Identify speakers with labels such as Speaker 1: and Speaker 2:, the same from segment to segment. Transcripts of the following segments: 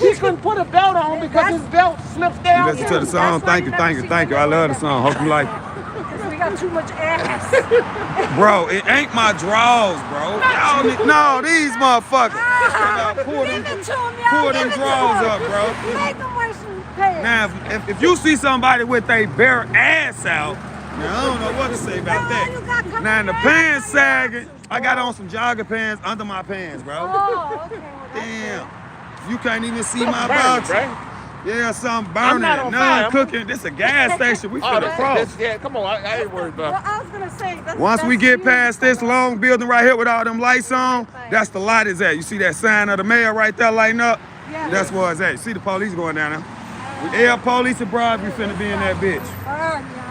Speaker 1: She couldn't put a belt on because his belt slipped down.
Speaker 2: Listen to the song.
Speaker 3: That's why
Speaker 2: Thank
Speaker 3: you
Speaker 2: you,
Speaker 3: never
Speaker 2: thank you,
Speaker 3: see
Speaker 2: thank you. I love the song. Hope you like it.
Speaker 3: Because we got too much ass.
Speaker 2: Bro, it ain't my draws, bro. Y'all need, no, these motherfuckers. Y'all pull
Speaker 3: Give it
Speaker 2: them,
Speaker 3: to 'em, y'all.
Speaker 2: pull
Speaker 3: Give
Speaker 2: them
Speaker 3: it to
Speaker 2: draws
Speaker 3: 'em.
Speaker 2: up, bro.
Speaker 3: Make them wear some pants.
Speaker 2: Now, if, if you see somebody with a bare ass out, now, I don't know what to say about
Speaker 3: Girl, you got
Speaker 2: that.
Speaker 3: coming
Speaker 2: Now, and the
Speaker 3: down.
Speaker 2: pants sagging, I got on some jogger pants under my pants, bro.
Speaker 3: Oh, okay. Well, that's
Speaker 2: Damn. You can't even see my
Speaker 1: Burn,
Speaker 2: box.
Speaker 1: bro.
Speaker 2: Yeah, something burning.
Speaker 1: not on
Speaker 2: Now
Speaker 1: fire.
Speaker 2: I'm cooking. This a gas station. We
Speaker 1: Oh,
Speaker 2: finna
Speaker 1: that's,
Speaker 2: cross.
Speaker 1: that's, yeah, come on. I, I ain't worried
Speaker 3: Well,
Speaker 1: about it.
Speaker 3: I was gonna say. That's,
Speaker 2: Once we
Speaker 3: that's
Speaker 2: get
Speaker 3: you.
Speaker 2: past this long building right here with all them lights on, that's the lot is at. You see that sign of the mayor right there lighting up?
Speaker 3: Yeah.
Speaker 2: That's where it's at. You see the police going down there? The air police abroad, we finna be in that bitch.
Speaker 3: Burn, y'all.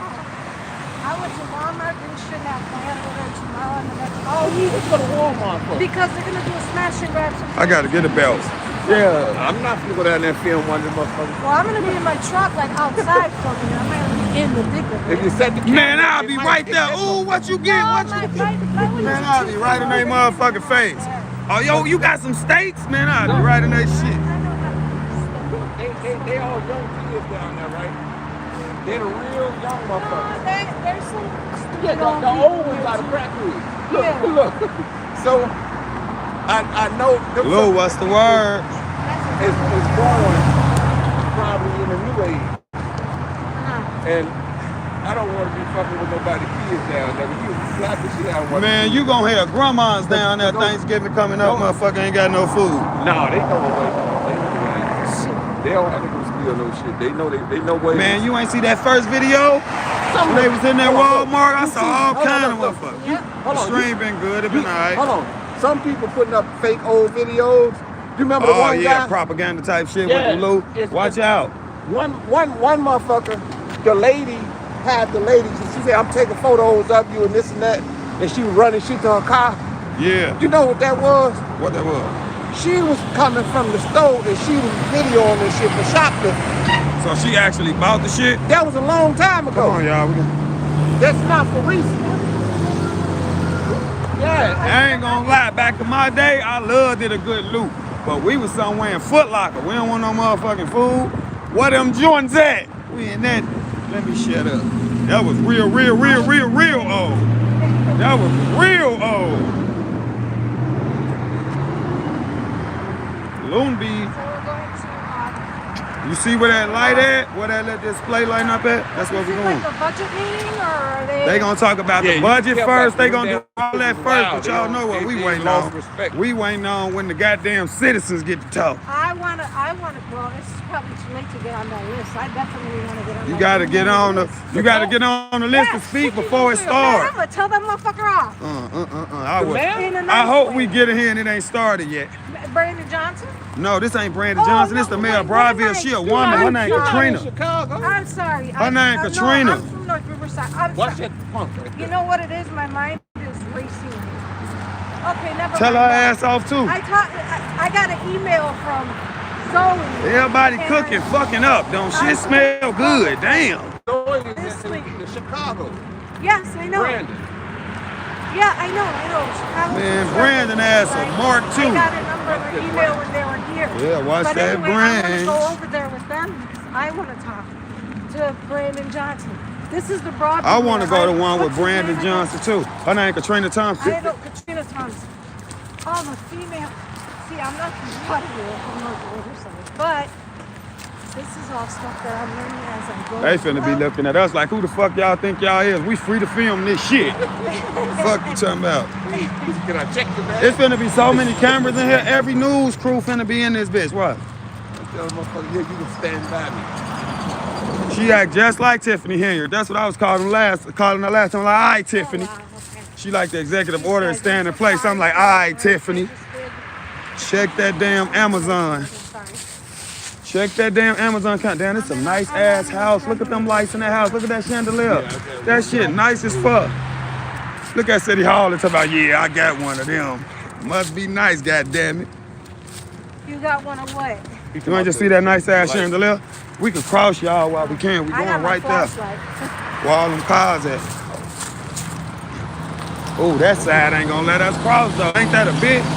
Speaker 3: I went to Walmart and shit. Now plan to go tomorrow and the next. Oh,
Speaker 1: Let's go to Walmart for.
Speaker 3: because they're gonna do a smash and grab. Some
Speaker 2: I gotta get a belt.
Speaker 1: Yeah, I'm not gonna go down there and film one of them motherfuckers.
Speaker 3: Well, I'm gonna be in my truck, like outside from you. I'm gonna be in the dick of
Speaker 1: If
Speaker 3: it.
Speaker 1: you set the camera,
Speaker 2: Man, I'll
Speaker 1: it
Speaker 2: be
Speaker 1: might
Speaker 2: right
Speaker 1: get
Speaker 2: there.
Speaker 1: that
Speaker 2: Ooh, what you get? What you
Speaker 3: like, like, like when you
Speaker 2: Man, I'll be right in their motherfucking face. Oh, yo, you got some steaks? Man, I'll be right in their shit.
Speaker 3: I know how
Speaker 1: They, they, they all young kids down there, right? They're the real young
Speaker 3: to do stuff. No,
Speaker 1: motherfuckers.
Speaker 3: they, there's some stupid
Speaker 1: Yeah, the,
Speaker 3: old
Speaker 1: the
Speaker 3: people
Speaker 1: old
Speaker 3: here,
Speaker 1: ones are the
Speaker 3: too.
Speaker 1: crack kids.
Speaker 3: Yeah.
Speaker 1: Look, look. So, I, I know them
Speaker 2: Lou, what's the word?
Speaker 3: That's
Speaker 1: is, is born probably in a new age.
Speaker 3: Uh-huh.
Speaker 1: And I don't want to be fucking with nobody kids down there. You slap the shit out of one.
Speaker 2: Man, you gonna have grandmas down there Thanksgiving coming up, motherfucker ain't got no food.
Speaker 1: No, they know away. They know away.
Speaker 3: Shit.
Speaker 1: They don't have to go steal no shit. They know they, they know where.
Speaker 2: Man, you ain't see that first video?
Speaker 1: some
Speaker 2: When they was in that Walmart, I saw all
Speaker 1: Hold on,
Speaker 2: kind of
Speaker 1: hold on.
Speaker 2: motherfuckers.
Speaker 3: Yep.
Speaker 1: Hold
Speaker 2: The
Speaker 1: on,
Speaker 2: stream been good, it been
Speaker 1: Hold
Speaker 2: alright.
Speaker 1: on. Some people putting up fake old videos. You remember the
Speaker 2: Oh
Speaker 1: one
Speaker 2: yeah,
Speaker 1: guy?
Speaker 2: propaganda type shit
Speaker 1: Yeah,
Speaker 2: with the Lou.
Speaker 1: it's-
Speaker 2: Watch
Speaker 1: it's-
Speaker 2: out.
Speaker 1: One, one, one motherfucker, the lady had the lady, she she said, I'm taking photos of you and this and that. And she was running shit to her car.
Speaker 2: Yeah.
Speaker 1: You know what that was?
Speaker 2: What that was?
Speaker 1: She was coming from the store and she was videoing this shit for shoplifting.
Speaker 2: So she actually bought the shit?
Speaker 1: That was a long time ago.
Speaker 2: Come on, y'all. We can...
Speaker 1: That's not for recent. Yeah.
Speaker 2: I ain't gonna lie, back in my day, I loved it a good loot. But we was somewhere in Foot Locker. We don't want no motherfucking food. Where them joints at? We in that. Let me shut up. That was real, real, real, real, real old. That was real old. Loon be
Speaker 3: So we're going to, uh,
Speaker 2: You see where that light at? Where that little display lighting up at? That's where
Speaker 3: is
Speaker 2: we
Speaker 3: it
Speaker 2: going.
Speaker 3: like a budget meeting or are they?
Speaker 2: They gonna talk about
Speaker 1: Yeah,
Speaker 2: the
Speaker 1: you
Speaker 2: budget
Speaker 1: kept
Speaker 2: first.
Speaker 1: that
Speaker 2: They gonna
Speaker 1: dude
Speaker 2: do all
Speaker 1: down.
Speaker 2: that first,
Speaker 1: Wow,
Speaker 2: but
Speaker 1: they
Speaker 2: y'all
Speaker 1: don't-
Speaker 2: know what
Speaker 1: they-
Speaker 2: we
Speaker 1: they
Speaker 2: waiting
Speaker 1: lost
Speaker 2: on.
Speaker 1: respect.
Speaker 2: We waiting on when the goddamn citizens get to talk.
Speaker 3: I wanna, I wanna, well, it's probably too late to get on that list. I definitely wanna get on.
Speaker 2: You
Speaker 3: that
Speaker 2: gotta
Speaker 3: list.
Speaker 2: get on the you gotta get on the list
Speaker 3: Yeah,
Speaker 2: to speak
Speaker 3: shit, you
Speaker 2: before it
Speaker 3: do Man, I'm
Speaker 2: starts.
Speaker 3: gonna tell that motherfucker off.
Speaker 2: Uh, uh, uh, uh, I,
Speaker 1: The
Speaker 2: would,
Speaker 1: man?
Speaker 3: In a
Speaker 2: I
Speaker 3: nice
Speaker 2: hope
Speaker 3: way.
Speaker 2: we get in here and it ain't started yet.
Speaker 3: Brandon Johnson?
Speaker 2: No, this ain't Brandon
Speaker 3: Oh,
Speaker 2: Johnson.
Speaker 3: no,
Speaker 2: This the mayor of
Speaker 3: wait, wait,
Speaker 2: Broadville.
Speaker 3: wait.
Speaker 2: She a
Speaker 3: You
Speaker 2: woman.
Speaker 3: are-
Speaker 2: Her name
Speaker 3: you are-
Speaker 2: Katrina.
Speaker 1: Chicago.
Speaker 3: I'm sorry.
Speaker 2: Her name
Speaker 3: I'm-
Speaker 2: Katrina.
Speaker 3: No, I'm from North Riverside. I'm
Speaker 1: Watch
Speaker 3: sorry.
Speaker 1: that punk right
Speaker 3: You
Speaker 1: there.
Speaker 3: know what it is? My mind is racing. Okay, never
Speaker 2: Tell
Speaker 3: mind
Speaker 2: her
Speaker 3: that.
Speaker 2: ass off too.
Speaker 3: I talked. I, I got an email from Zoe.
Speaker 2: Everybody
Speaker 3: and
Speaker 2: cooking, fucking up. Don't shit smell good. Damn.
Speaker 1: Going in-
Speaker 3: This
Speaker 1: in-
Speaker 3: week.
Speaker 1: in Chicago.
Speaker 3: Yes, I know.
Speaker 1: Brandon.
Speaker 3: Yeah, I know. I know. Chicago.
Speaker 2: Man, Brandon ass a mark,
Speaker 3: I
Speaker 2: too.
Speaker 3: got a number or email when they were here.
Speaker 2: Yeah, watch
Speaker 3: but
Speaker 2: that
Speaker 3: anyway, I
Speaker 2: Brand.
Speaker 3: want to go over there with them. because I want to talk to Brandon Johnson. This is the broad.
Speaker 2: I want to go to one with
Speaker 3: what's her
Speaker 2: Brandon
Speaker 3: name again?
Speaker 2: Johnson too. Her name Katrina Thompson.
Speaker 3: I don't, Katrina Thompson. I'm a female. See, I'm not from Waterloo, I'm not Riverside, but this is all stuff that I'm learning as I'm going.
Speaker 2: They finna be
Speaker 3: up.
Speaker 2: looking at us like, who the fuck y'all think y'all is? We free to film this shit. fuck you talking about?
Speaker 1: Can I check the bag?
Speaker 2: It's finna be so many cameras in here. Every news crew finna be in this bitch. What?
Speaker 1: Tell the motherfucker here, you can stand by me.
Speaker 2: She act just like Tiffany Henry. That's what I was calling last, calling her last time. Like, all right, Tiffany.
Speaker 3: Oh, wow, okay.
Speaker 2: She like the executive order and stand in place. I'm like, all right, Tiffany. Check that damn Amazon. Check that damn Amazon account. Damn, it's a nice ass house. Look at them lights in that house. Look at that chandelier. That shit nice as fuck. Look at City Hall and talk about, yeah, I got one of them. Must be nice, goddamn it.
Speaker 3: You got one of what?
Speaker 2: You ain't just see that nice ass chandelier? We can cross y'all while we can. We
Speaker 3: I got
Speaker 2: going
Speaker 3: my
Speaker 2: right there
Speaker 3: flashlight.
Speaker 2: where all them cars at. Oh, that side ain't gonna let us cross though. Ain't that a bitch?